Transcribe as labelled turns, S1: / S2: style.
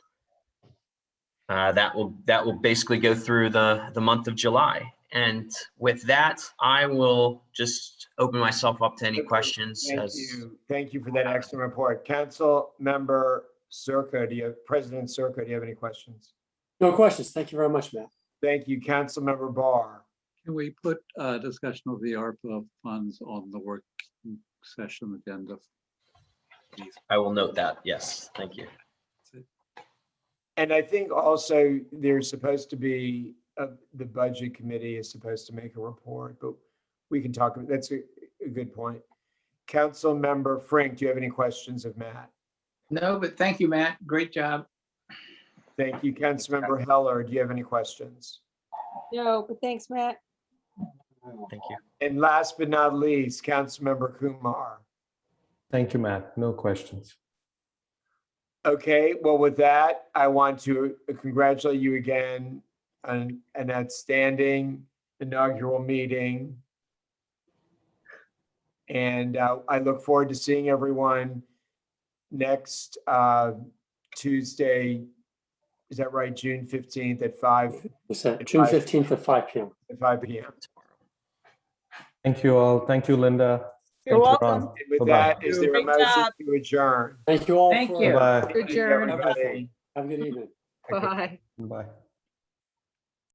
S1: Uh, that will that will basically go through the the month of July. And with that, I will just open myself up to any
S2: Thank you.
S1: questions.
S2: Thank
S1: as-
S2: you. Thank you for that excellent report. Council member Circa, do you, have President Circa, do you have any questions?
S3: No questions. Thank you very much, Matt.
S2: Thank you, Council member Barr.
S4: Can we put a discussion of the ARPA funds on the work session agenda? please?
S1: I will note that. Yes, thank you.
S2: And I think also there's supposed to be, uh, the budget committee is supposed to make a report, but we can talk, that's a, a good point. Council member Frank, do you have any questions of Matt?
S5: No, but thank you, Matt. Great job.
S2: Thank you, Council member Heller. Do you have any questions?
S6: No, but thanks, Matt.
S1: Thank you.
S2: And last but not least, Councilmember Kumar.
S7: Thank you, Matt. No questions.
S2: Okay, well, with that, I want to congratulate you again on an outstanding inaugural meeting. And uh, I look forward to seeing everyone next uh, Tuesday. Is that right? June 15th at 5,
S3: It's uh, June fifteenth at five PM.
S2: at 5 p.m.
S7: Thank you all. Thank you, Linda.
S8: You're
S7: Thank
S8: welcome.
S7: you, Ron.
S2: And With
S7: Bye-bye.
S2: that, is there a
S8: Great
S2: motion
S8: job.
S2: to adjourn?
S3: Thank you all.
S5: Thank
S3: for-
S5: you.
S7: Bye-bye.
S2: Thank you,
S8: Adjourn.
S2: everybody.
S3: Have a good evening.
S2: Okay.
S8: Bye.
S7: Bye.